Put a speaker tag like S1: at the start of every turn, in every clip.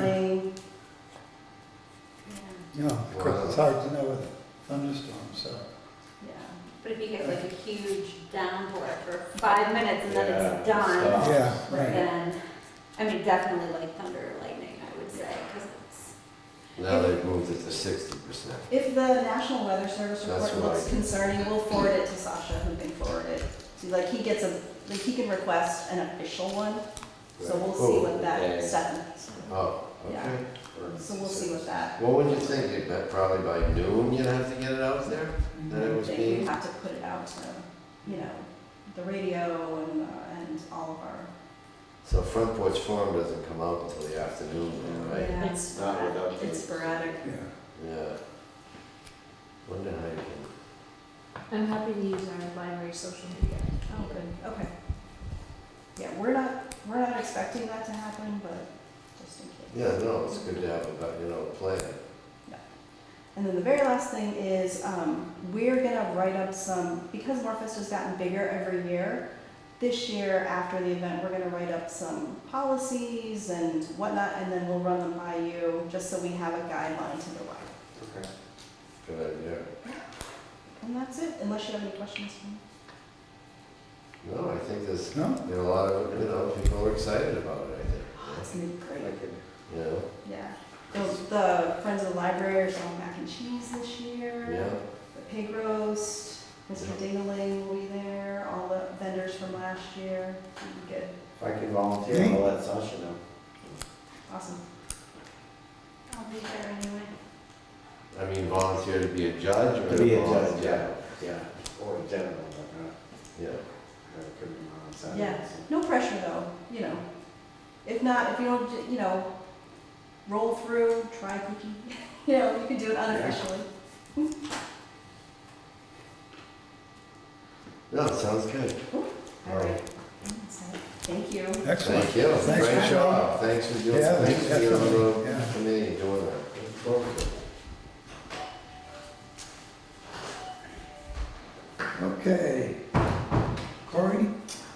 S1: flooding.
S2: Yeah,
S3: No, of course, it's hard to know with thunderstorms, so.
S2: yeah. But if you get like a huge downpour for five minutes and then it's done,
S4: Yeah.
S3: Yeah, right.
S2: then, I mean, definitely like thunder or lightning, I would say, because it's,
S4: Now they've moved it to sixty percent.
S1: If the National Weather Service
S4: That's
S1: report looks
S4: right.
S1: concerning, we'll forward it to Sasha, who can forward it. See, like, he gets a, like, he can request an official one, so we'll see what that, Stefan,
S4: Oh, okay.
S1: so we'll see what that.
S4: What would you think, It meant probably by noon you'd have to get it out there? That it was
S1: That you
S4: being-
S1: have to put it out to, you know, the radio and, uh, and all of our.
S4: So front porch forum doesn't come out until the afternoon, then, right?
S1: Yeah, It's
S5: Not
S1: sporadic.
S5: without
S1: It's
S5: the-
S1: sporadic.
S3: Yeah,
S4: Yeah. Wonder how you can.
S6: I'm happy to use our library social media.
S1: Oh, good, okay. Yeah, we're not, we're not expecting that to happen, but just in case.
S4: Yeah, no, it's good to have about, you know, a plan.
S1: And then the very last thing is, um, we're gonna write up some, because Morfest has gotten bigger every year, this year after the event, we're gonna write up some policies and whatnot, and then we'll run them by you, just so we have a guideline to go by.
S5: Okay.
S4: Good idea.
S1: And that's it, unless you have any questions for me.
S4: No, I think there's,
S3: no?
S4: there are a lot of, you know, people are excited about it, I think.
S1: Oh, it's gonna be great,
S5: Like it.
S4: You know,
S1: yeah. The, the Friends of the Library are selling mac and cheese this year.
S4: yeah,
S1: The pig roast, Mr. Dingaling will be there, all the vendors from last year, It'll be good,
S5: If I could volunteer, I'll let Sasha know.
S1: awesome.
S2: I'll be there anyway.
S4: I mean, volunteer to be a judge or.
S5: To be a judge,
S4: volunteer-
S5: yeah, yeah, or a general, but not,
S4: Yeah.
S5: that could be on Saturday.
S1: Yeah.
S5: so.
S1: No pressure though, you know. If not, if you don't, you know, roll through, try cookie, you know, you can do it unofficially.
S4: No, it sounds good.
S1: All right. Thank you.
S3: Excellent.
S4: Thank you.
S3: Thanks
S4: Great
S3: for
S4: job. Thanks for doing,
S3: Yeah,
S4: thanks for being on the
S3: definitely,
S4: road
S3: yeah.
S4: for me and doing that. Look forward to it.
S3: Okay. Corey?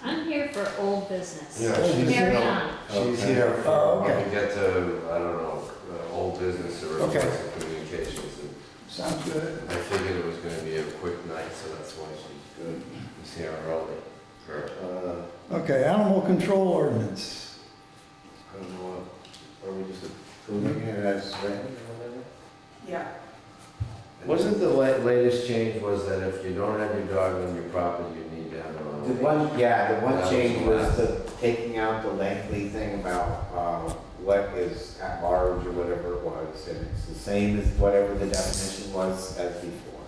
S6: I'm here for old business.
S4: Yeah, she's,
S6: Carry
S4: no,
S6: on.
S4: she's
S5: Okay.
S4: here.
S3: Oh,
S4: for- When
S3: okay.
S4: we get to, I don't know, uh, old business or
S3: Okay.
S4: request of communications. and
S3: Sounds good.
S4: I figured it was gonna be a quick night, so that's why she's good. She's here early. Her-
S5: Uh,
S3: Okay, animal control ordinance.
S5: I don't know, are we just approving it as written or whatever?
S1: Yeah.
S4: Wasn't the la- latest change was that if you don't have your dog on your property, you need to have it on?
S5: The one, yeah, the
S4: That
S5: one
S4: was
S5: change
S4: the
S5: was the taking out the lengthy thing about, um, what is at large or whatever it was, and it's the same as whatever the definition was as before.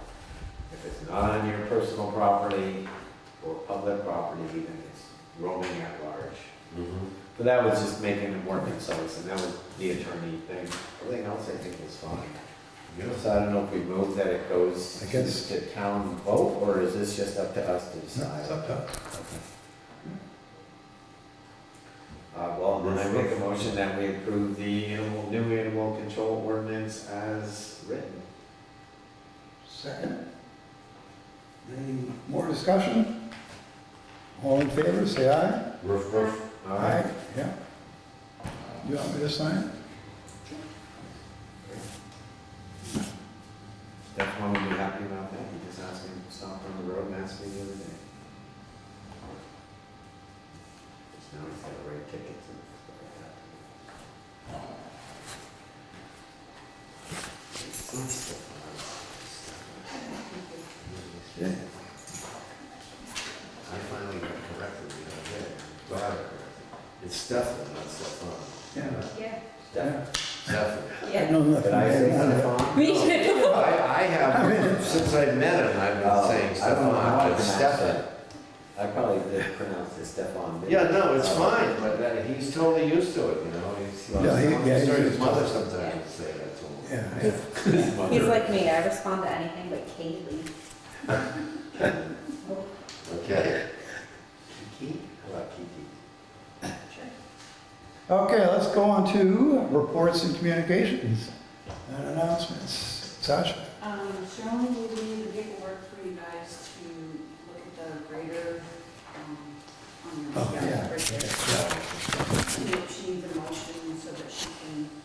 S5: If it's not on your personal property or public property, then it's roaming at large.
S4: Mhm.
S5: But that was just making it more concise, and that was the attorney thing. Everything else I think was fine.
S4: Yeah.
S5: So I don't know if we move that it goes
S3: I
S5: to
S3: guess-
S5: the town vote, or is this just up to us to
S3: No,
S5: decide?
S3: it's up to us.
S5: Uh, well, then I make a motion that we approve the animal, new animal control ordinance as written.
S3: Second. Any more discussion? All in favor, say aye.
S4: Roof, roof.
S5: All right,
S3: Yeah. You want me to sign?
S5: Stefan would be happy about that, he just asked me, stopped on the road and asked me the other day. Just now he's got to write tickets and stuff like that. It's so Stefan.
S3: Yeah.
S4: I finally got corrected the other day. Glad I corrected. It's Stefan, not Stefan.
S3: Yeah.
S2: Yeah.
S3: Yeah.
S4: Stefan.
S3: I know nothing.
S5: Did I say
S3: about it.
S4: Oh,
S5: Stefan?
S2: Me too.
S4: I, I have, since I met him, I've
S5: Oh,
S4: been saying
S5: I don't know how
S4: Stefan, but Stefan.
S5: to pronounce it. I probably did pronounce it Stefan. didn't
S4: Yeah,
S5: I?
S4: no, it's fine, but uh, he's totally used to it, you know, he's, he's,
S3: Yeah, he- yeah, he's
S4: he's heard his
S3: used to
S4: mother
S3: it.
S4: sometimes would say that to him.
S3: Yeah, yeah.
S2: He's like me, I respond to anything but Kaylee.
S4: Okay.
S5: Kiki? How about Kiki?
S3: Okay, let's go on to reports and communications and announcements. Sasha?
S7: Um, Sharon will be the paperwork for you guys to look at the grader, um, on
S3: Oh,
S7: your,
S3: yeah,
S7: yeah, grader.
S3: yeah.
S7: She- She needs a motion, so
S2: so that she can